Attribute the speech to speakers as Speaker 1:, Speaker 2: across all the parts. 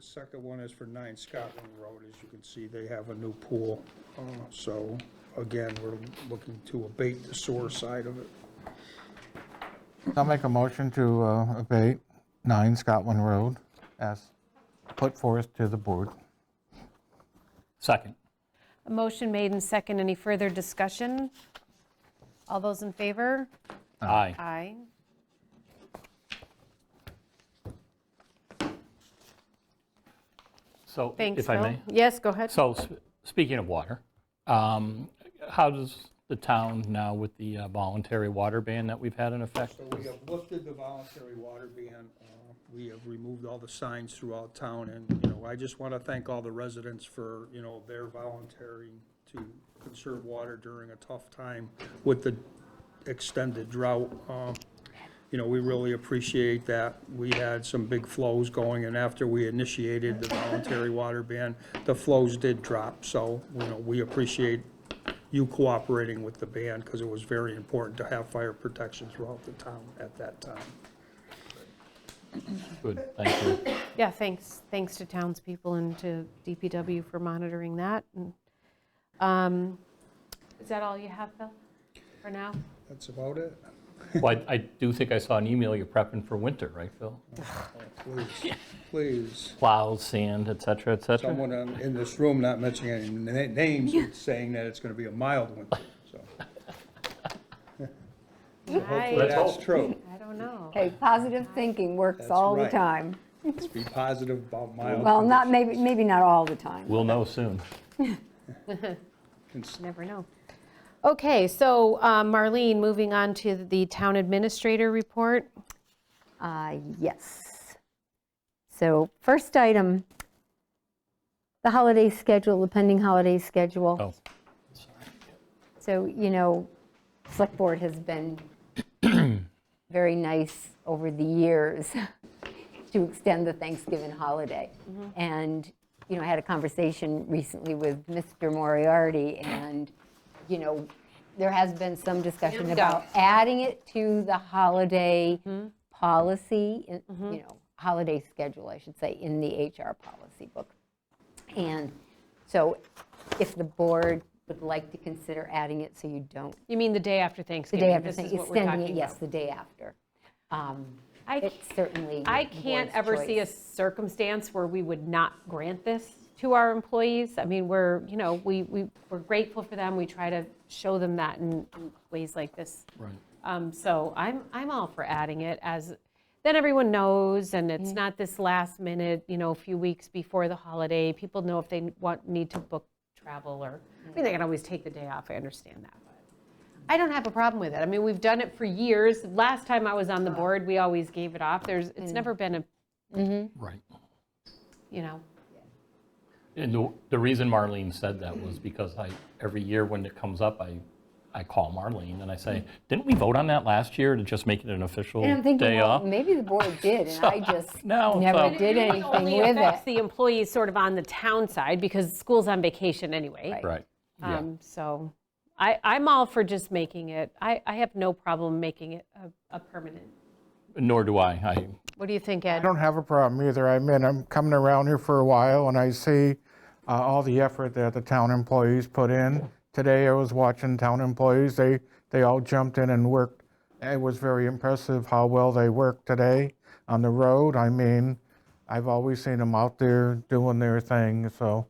Speaker 1: second one is for Nine Scotland Road. As you can see, they have a new pool. Uh, So again, we're looking to abate the sewer side of it.
Speaker 2: I'll make a motion to uh, abate 9 Scotland Road as put forth to the board.
Speaker 3: Second.
Speaker 4: A motion made and second. Any further discussion? All those in favor?
Speaker 3: Aye.
Speaker 4: Aye.
Speaker 3: So,
Speaker 4: Thanks,
Speaker 3: if I
Speaker 4: Phil.
Speaker 3: may.
Speaker 4: Yes, go ahead.
Speaker 3: So, s- speaking of water, um, how does the town now with the uh, voluntary water ban that we've had in effect?
Speaker 1: So we have lifted the voluntary water ban. uh, We have removed all the signs throughout town, and, you know, I just want to thank all the residents for, you know, their volunteering to conserve water during a tough time with the extended drought. Um, You know, we really appreciate that. We had some big flows going, and after we initiated the voluntary water ban, the flows did drop, so, you know, we appreciate you cooperating with the band, because it was very important to have fire protection throughout the town at that time.
Speaker 3: Good, thank you.
Speaker 4: Yeah, thanks, thanks to townspeople and to DPW for monitoring that. And, um, Is that all you have, Phil, for now?
Speaker 1: That's about it.
Speaker 3: Well, I I do think I saw an email you're prepping for winter, right, Phil?
Speaker 1: Please, please.
Speaker 3: Plows, sand, et cetera, et cetera?
Speaker 1: Someone on- in this room, not mentioning any na- names, is saying that it's going to be a mild winter, so
Speaker 4: I
Speaker 3: Let's
Speaker 1: that's
Speaker 3: hope.
Speaker 1: true.
Speaker 4: I don't know.
Speaker 5: Okay, positive thinking works
Speaker 1: That's
Speaker 5: all the
Speaker 1: right.
Speaker 5: time.
Speaker 1: Let's be positive about mild.
Speaker 5: Well, not, maybe, maybe not all the time.
Speaker 3: We'll know soon.
Speaker 1: conditions.
Speaker 4: Never know. Okay, so um, Marlene, moving on to the town administrator report.
Speaker 5: Uh, Yes. So first item, the holiday schedule, the pending holiday schedule.
Speaker 3: Oh,
Speaker 5: So, you know, Select Board has been very nice over the years to extend the Thanksgiving holiday. And, you know, I had a conversation recently with Mr. Moriarty, and, you know, there has been some discussion about adding it to the holiday policy, in- you know, holiday schedule, I should say, in the HR policy book. And so if the board would like to consider adding it so you don't,
Speaker 4: You mean the day after
Speaker 5: the
Speaker 4: Thanksgiving?
Speaker 5: day after,
Speaker 4: This is
Speaker 5: Thanksgiving,
Speaker 4: what we're
Speaker 5: extending it,
Speaker 4: talking
Speaker 5: yes,
Speaker 4: about.
Speaker 5: the day after. Um,
Speaker 4: I
Speaker 5: It's certainly
Speaker 4: I
Speaker 5: the
Speaker 4: can't
Speaker 5: board's
Speaker 4: ever see a
Speaker 5: choice.
Speaker 4: circumstance where we would not grant this to our employees. I mean, we're, you know, we, we, we're grateful for them. We try to show them that in in ways like this.
Speaker 3: right.
Speaker 4: Um, So I'm, I'm all for adding it as, then everyone knows and it's not this last minute, you know, a few weeks before the holiday. People know if they want, need to book travel or, I mean, they can always take the day off. I understand that. but I don't have a problem with it. I mean, we've done it for years. Last time I was on the board, we always gave it off. There's, it's never been a,
Speaker 3: Right.
Speaker 4: you know,
Speaker 3: And the, the reason Marlene said that was because I, every year when it comes up, I, I call Marlene and I say, didn't we vote on that last year to just make it an official
Speaker 5: And I'm thinking,
Speaker 3: Oh, day
Speaker 5: well,
Speaker 3: off?
Speaker 5: maybe the board did, and I just
Speaker 3: No, so-
Speaker 5: never did
Speaker 4: It
Speaker 5: anything
Speaker 4: only
Speaker 5: with
Speaker 4: affects
Speaker 5: it.
Speaker 4: the employees sort of on the town side because school's on vacation anyway.
Speaker 5: Right.
Speaker 3: Right, yeah.
Speaker 4: Um, So I, I'm all for just making it, I, I have no problem making it a- a permanent.
Speaker 3: Nor do I. I,
Speaker 4: What do you think,
Speaker 2: I
Speaker 4: Ed?
Speaker 2: don't have a problem either. I mean, I'm coming around here for a while and I see uh, all the effort that the town employees put in. Today, I was watching town employees, they, they all jumped in and worked. It was very impressive how well they worked today on the road. I mean, I've always seen them out there doing their thing, so.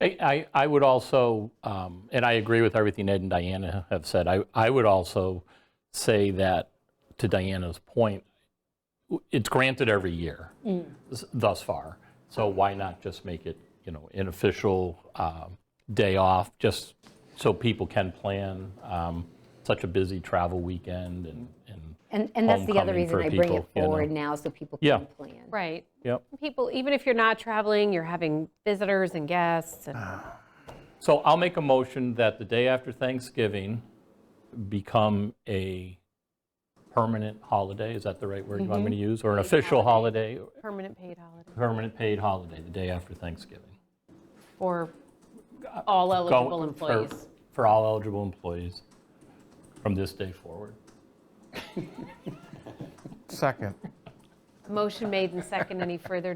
Speaker 3: I, I- I would also, um, and I agree with everything Ed and Diana have said, I, I would also say that, to Diana's point, w- it's granted every year
Speaker 5: Mm.
Speaker 3: s- thus far, so why not just make it, you know, an official um, day off, just so people can plan um, such a busy travel weekend and, and,
Speaker 5: And, and that's the other
Speaker 3: Homecoming
Speaker 5: reason
Speaker 3: for
Speaker 5: I bring it
Speaker 3: people, you know.
Speaker 5: forward now, so people
Speaker 3: Yeah.
Speaker 5: can plan.
Speaker 4: Right.
Speaker 3: yep.
Speaker 4: People, even if you're not traveling, you're having visitors and guests and
Speaker 5: Uh.
Speaker 3: So I'll make a motion that the day after Thanksgiving become a permanent holiday, is that the right word you want
Speaker 4: Mm-hmm.
Speaker 3: me to use? Or an official holiday,
Speaker 4: permanent paid holiday
Speaker 3: permanent paid holiday, the day after Thanksgiving.
Speaker 4: for all
Speaker 3: Go-
Speaker 4: eligible
Speaker 3: for-
Speaker 4: employees.
Speaker 3: For all eligible employees from this day forward.
Speaker 2: Second.
Speaker 4: Motion made and second. Any further